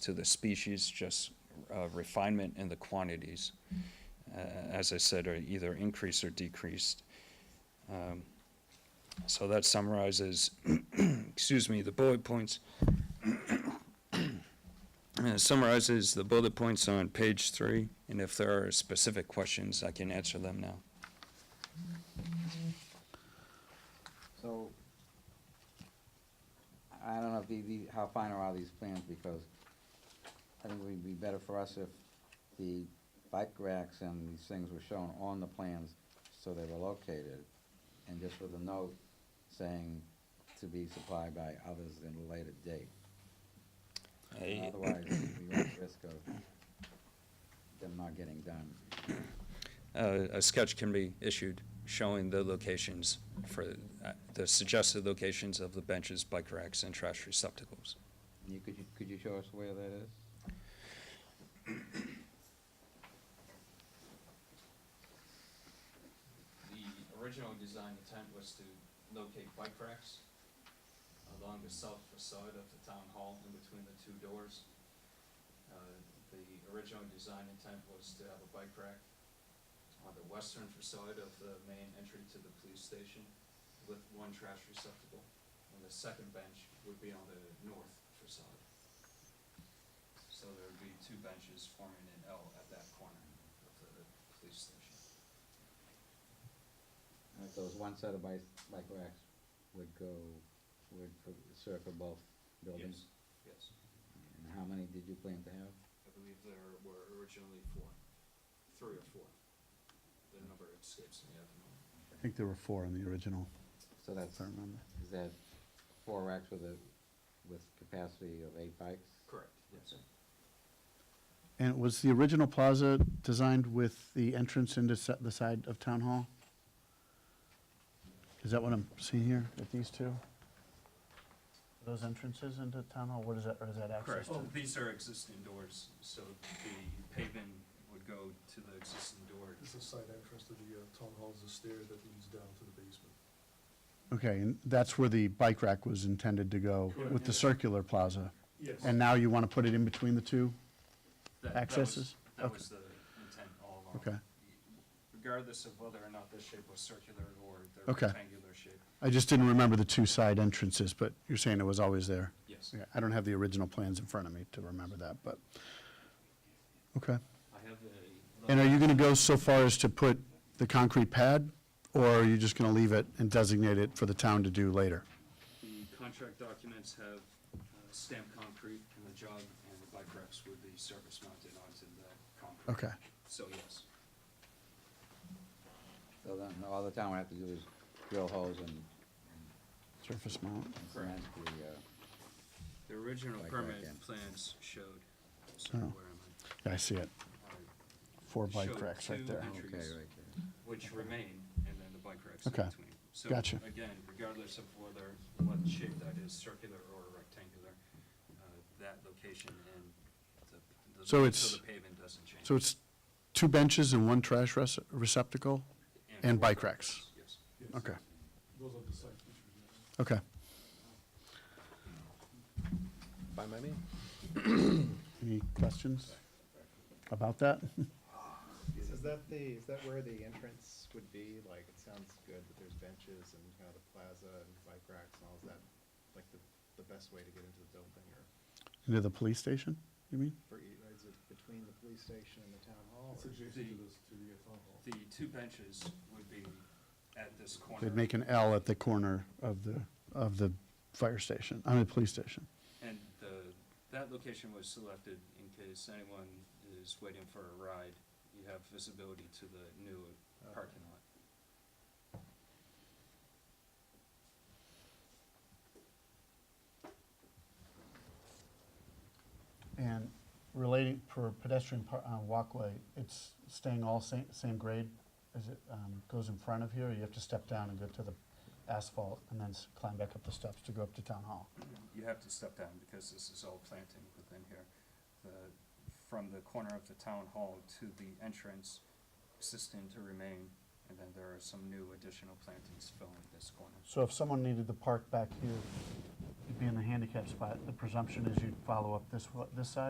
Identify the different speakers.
Speaker 1: to the species, just uh, refinement in the quantities. uh, As I said, are either increased or decreased. Um, So that summarizes, excuse me, the bullet points. Uh, Summarizes the bullet points on page three, and if there are specific questions, I can answer them now.
Speaker 2: So, I don't know if the, the, how fine are all these plans, because I think it would be better for us if the bike racks and these things were shown on the plans, so they were located, and just with a note saying to be supplied by others at a later date.
Speaker 1: I-
Speaker 2: Otherwise, we run the risk of them not getting done.
Speaker 1: uh, A sketch can be issued showing the locations for, uh, the suggested locations of the benches, bike racks, and trash receptacles.
Speaker 2: You, could you, could you show us where that is?
Speaker 1: The original design intent was to locate bike racks along the south facade of the town hall in between the two doors. Uh, The original design intent was to have a bike rack on the western facade of the main entry to the police station with one trash receptacle, and the second bench would be on the north facade. So there would be two benches forming an L at that corner of the police station.
Speaker 2: Alright, So it's one set of bike, bike racks would go, would cir- circle both buildings?
Speaker 1: Yes, yes.
Speaker 2: And how many did you plan to have?
Speaker 1: I believe there were originally four, three or four. The number escapes me at the moment.
Speaker 3: I think there were four in the original,
Speaker 2: So that's,
Speaker 3: if I remember.
Speaker 2: is that four racks with a, with capacity of eight bikes?
Speaker 1: Correct, yes.
Speaker 3: And was the original plaza designed with the entrance into si- the side of Town Hall? Is that what I'm seeing here, at these two? Those entrances into Town Hall, what is that, or is that access
Speaker 1: Correct.
Speaker 3: to?
Speaker 1: Oh, These are existing doors, so the pavement would go to the existing door.
Speaker 4: It's the side entrance to the uh, town hall, there's a stair that leads down to the basement.
Speaker 3: Okay, and that's where the bike rack was intended to go,
Speaker 4: Correct.
Speaker 3: with the circular plaza?
Speaker 4: Yes.
Speaker 3: And now you want to put it in between the two?
Speaker 1: That- that was-
Speaker 3: Accesses?
Speaker 1: That
Speaker 3: Okay.
Speaker 1: was the intent all along.
Speaker 3: Okay.
Speaker 1: Regardless of whether or not the shape was circular or the
Speaker 3: Okay.
Speaker 1: rectangular shape.
Speaker 3: I just didn't remember the two side entrances, but you're saying it was always there?
Speaker 1: Yes.
Speaker 3: Yeah, I don't have the original plans in front of me to remember that, but, okay.
Speaker 1: I have a.
Speaker 3: And are you gonna go so far as to put the concrete pad, or are you just gonna leave it and designate it for the town to do later?
Speaker 1: The contract documents have uh, stamped concrete in the job, and the bike racks would be surface mounted onto the concrete.
Speaker 3: Okay,
Speaker 1: So yes,
Speaker 2: So then, all the town would have to do is drill holes and
Speaker 3: surface mount.
Speaker 2: and cement the, uh,
Speaker 1: the original
Speaker 2: Bike rack,
Speaker 1: permit
Speaker 2: yeah.
Speaker 1: plans showed, sorry,
Speaker 3: Oh.
Speaker 1: where am I?
Speaker 3: Yeah, I see it,
Speaker 1: All right.
Speaker 3: four
Speaker 1: It
Speaker 3: bike
Speaker 1: showed
Speaker 3: racks right
Speaker 1: two
Speaker 3: there.
Speaker 1: entries,
Speaker 2: okay, right there.
Speaker 1: Which remain, and then the bike racks in
Speaker 3: Okay.
Speaker 1: between. So,
Speaker 3: Gotcha.
Speaker 1: Again, regardless of whether, what shape that is, circular or rectangular, uh, that location and the, the.
Speaker 3: So it's-
Speaker 1: the pavement doesn't change.
Speaker 3: So it's two benches and one trash rece- receptacle? and
Speaker 1: four
Speaker 3: bike racks.
Speaker 1: Yes.
Speaker 4: Yes.
Speaker 3: Okay,
Speaker 4: Those are the side features. yes.
Speaker 3: okay.
Speaker 5: By my name?
Speaker 3: Any questions about that?
Speaker 5: Is that the, is that where the entrance would be? Like, it sounds good, but there's benches and kind of the plaza and bike racks and all. Is that like the, the best way to get into the building or
Speaker 3: Into the police station, you mean?
Speaker 5: for, e- is it between the police station and the town hall?
Speaker 4: It's
Speaker 5: or-
Speaker 4: adjacent to this, to the uh, town hall.
Speaker 1: The two benches would be at this corner.
Speaker 3: They'd make an L at the corner of the, of the fire station, I mean, police station.
Speaker 1: And the, that location was selected in case anyone is waiting for a ride. You have visibility to the new parking lot.
Speaker 3: And relating, for pedestrian par- uh, walkway, it's staying all same, same grade as it um, goes in front of here? Or you have to step down and go to the asphalt and then s- climb back up the steps to go up to town hall?
Speaker 1: You have to step down because this is all planting within here. The, from the corner of the town hall to the entrance, existing to remain. And then there are some new additional plantings filling this corner.
Speaker 3: So if someone needed to park back here, it'd be in the handicap spot, the presumption is you'd follow up this, wa- this side?